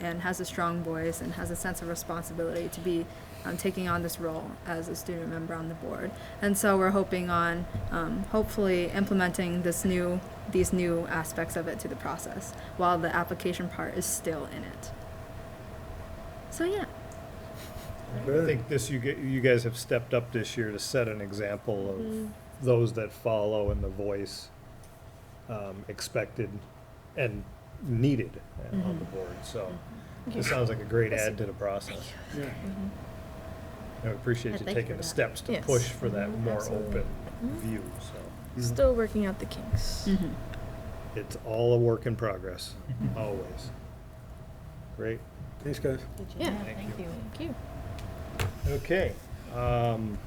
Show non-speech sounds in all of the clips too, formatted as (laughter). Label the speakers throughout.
Speaker 1: and has a strong voice and has a sense of responsibility to be um, taking on this role as a student member on the board. And so we're hoping on um, hopefully implementing this new these new aspects of it to the process while the application part is still in it. So yeah,
Speaker 2: I think this, you, ge- you guys have stepped up this year to set an example
Speaker 3: Mm-hmm.
Speaker 2: of those that follow and the voice um, expected and needed uh, on the
Speaker 3: Mm-hmm.
Speaker 2: board, so this sounds like a great add to the process. I appreciate
Speaker 3: Yeah,
Speaker 2: you
Speaker 3: thank you
Speaker 2: taking the
Speaker 3: for that.
Speaker 2: steps to
Speaker 3: Yes.
Speaker 2: push for that
Speaker 3: Mhm,
Speaker 2: more
Speaker 3: absolutely.
Speaker 2: open view, so.
Speaker 3: Still working out the kinks.
Speaker 2: It's all a work in
Speaker 3: (laughs)
Speaker 2: progress, always. Great.
Speaker 4: Thanks, guys.
Speaker 3: Yeah,
Speaker 2: Thank you.
Speaker 3: Mm-hmm. thank you.
Speaker 2: Okay. um,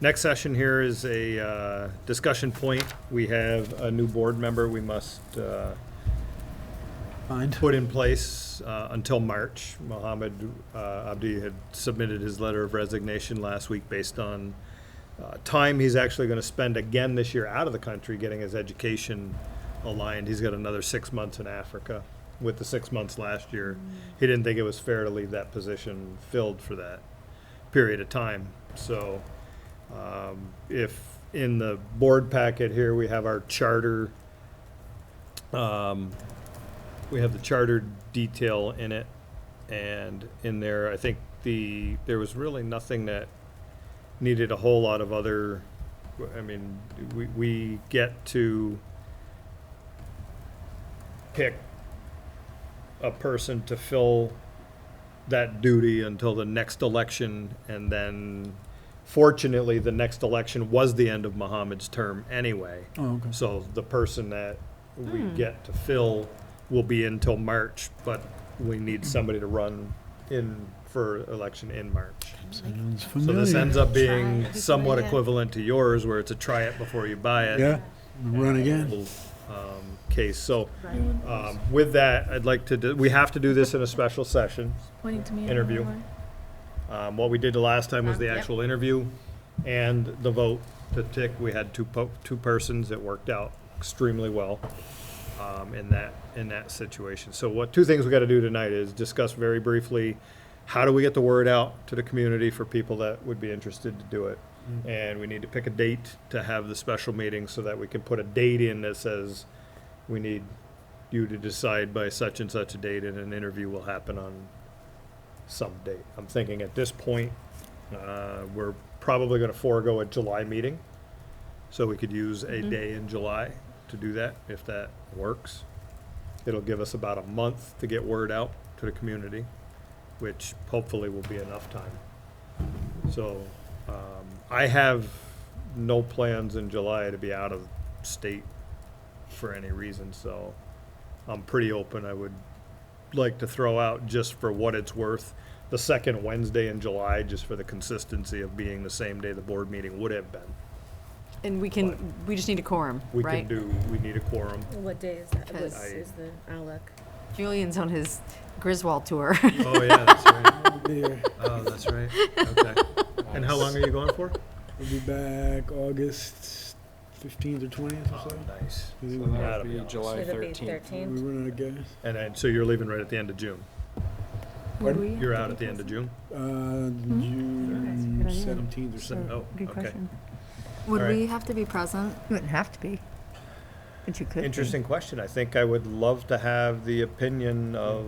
Speaker 2: Next session here is a uh, discussion point. We have a new board member we must uh,
Speaker 4: Mind.
Speaker 2: put in place uh, until March. Mohammed uh, Abdi had submitted his letter of resignation last week based on uh, time he's actually going to spend again this year out of the country getting his education aligned. He's got another six months in Africa with the six months last year. He didn't think it was fair to leave that position filled for that period of time. So um, if in the board packet here, we have our charter um, we have the charter detail in it, and in there, I think the, there was really nothing that needed a whole lot of other, I mean, we, we get to pick a person to fill that duty until the next election, and then fortunately, the next election was the end of Mohammed's term anyway.
Speaker 4: Oh, okay.
Speaker 2: So the person that we
Speaker 3: Hmm.
Speaker 2: get to fill will be until March, but we need somebody to run in for election in March.
Speaker 4: Sounds
Speaker 2: So this ends
Speaker 4: familiar.
Speaker 2: up being
Speaker 3: it.
Speaker 2: somewhat
Speaker 3: Yeah.
Speaker 2: equivalent to yours, where it's a try it before you buy it.
Speaker 4: Yeah, run again.
Speaker 2: little, um, Case, so, um, with that, I'd like to, do- we have to do this in a special session.
Speaker 3: Pointing to me.
Speaker 2: Interview.
Speaker 3: anymore.
Speaker 2: Um, what we did the last time was the
Speaker 3: Yep.
Speaker 2: actual interview and the vote to tick. We had two po- two persons. It worked out extremely well, um, in that, in that situation. So what, two things we gotta do tonight is discuss very briefly, how do we get the word out to the community for people that would be interested to do it?
Speaker 4: Mm-hmm.
Speaker 2: And we need to pick a date to have the special meeting so that we can put a date in that says, we need you to decide by such and such a date and an interview will happen on some date. I'm thinking at this point, uh, we're probably gonna forego a July meeting, so we could use a day in July to do that, if that works. It'll give us about a month to get word out to the community, which hopefully will be enough time. So, um, I have no plans in July to be out of state for any reason, so I'm pretty open. I would like to throw out just for what it's worth, the second Wednesday in July, just for the consistency of being the same day the board meeting would have been.
Speaker 5: And we can, we just need a quorum,
Speaker 2: We can
Speaker 5: right?
Speaker 2: do, we need a quorum.
Speaker 6: What day is that?
Speaker 5: Because-
Speaker 2: (laughs)
Speaker 6: What is the, I'll look.
Speaker 5: Julian's on his Griswold
Speaker 7: (laughs)
Speaker 5: tour.
Speaker 2: Oh, yeah, that's right.
Speaker 4: There,
Speaker 2: Oh, that's right. Okay. And how long are you going for?
Speaker 4: we'll be back August fifteenth or twentieth or so.
Speaker 2: Oh, nice.
Speaker 4: Is it-
Speaker 8: So that
Speaker 2: That'll
Speaker 8: would
Speaker 2: be
Speaker 8: be
Speaker 2: awesome.
Speaker 8: July
Speaker 6: It'll be
Speaker 8: thirteenth.
Speaker 4: We
Speaker 6: 13th.
Speaker 4: run out of gas.
Speaker 2: And then, so you're leaving right at the end of June?
Speaker 4: Pardon?
Speaker 5: We-
Speaker 2: You're out at the end of June?
Speaker 4: Uh,
Speaker 6: Mm-hmm. good
Speaker 4: June
Speaker 6: idea.
Speaker 4: seventeenth or
Speaker 2: So-
Speaker 4: so.
Speaker 2: Oh, okay.
Speaker 1: would
Speaker 2: All right.
Speaker 1: we have to be present?
Speaker 7: Wouldn't have to be, but you could. be.
Speaker 2: Interesting question. I think I would love to have the opinion of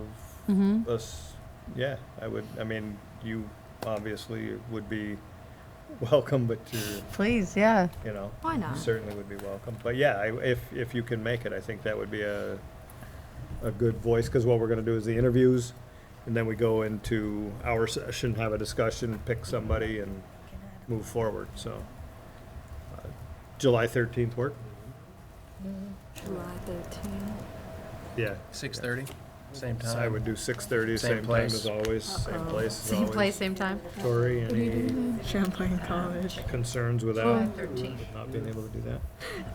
Speaker 5: Mm-hmm.
Speaker 2: us. Yeah, I would, I mean, you obviously would be (laughs) welcome, but you're,
Speaker 7: Please, yeah.
Speaker 2: you know.
Speaker 1: Why not?
Speaker 2: Certainly would be welcome. But yeah, I- if, if you can make it, I think that would be a, a good voice, because what we're gonna do is the interviews, and then we go into our session, have a discussion, pick somebody, and move forward, so. uh, July thirteenth work?
Speaker 1: July 13th.
Speaker 2: Yeah.
Speaker 8: Six thirty, same
Speaker 2: So I
Speaker 8: time.
Speaker 2: would do six thirty,
Speaker 8: Same
Speaker 2: same time
Speaker 8: place.
Speaker 2: as always, same
Speaker 1: Uh-oh.
Speaker 2: place as
Speaker 5: Same place,
Speaker 2: always.
Speaker 5: same time?
Speaker 2: Tori, any
Speaker 1: Champlain College.
Speaker 2: concerns with that,
Speaker 5: Thirteen.
Speaker 2: not being able to do that?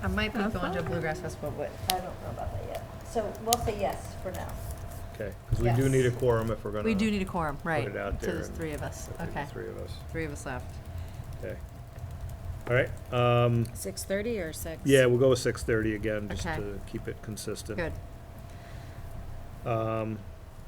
Speaker 5: I might be going to Bluegrass Festival, but
Speaker 9: I don't know about that yet. So we'll say yes for now.
Speaker 2: Okay, because we do
Speaker 9: Yes.
Speaker 2: need a quorum if we're gonna.
Speaker 5: we do need a quorum, right?
Speaker 2: it out
Speaker 5: So
Speaker 2: there
Speaker 5: there's
Speaker 2: and
Speaker 5: three of us,
Speaker 2: there'll be the
Speaker 5: okay.
Speaker 2: Three of us,
Speaker 5: Three of us left.
Speaker 2: okay. All right, um,
Speaker 6: Six thirty or six?
Speaker 2: Yeah, we'll go with six thirty again, just
Speaker 5: Okay.
Speaker 2: to keep it consistent.
Speaker 5: Good.
Speaker 2: Um,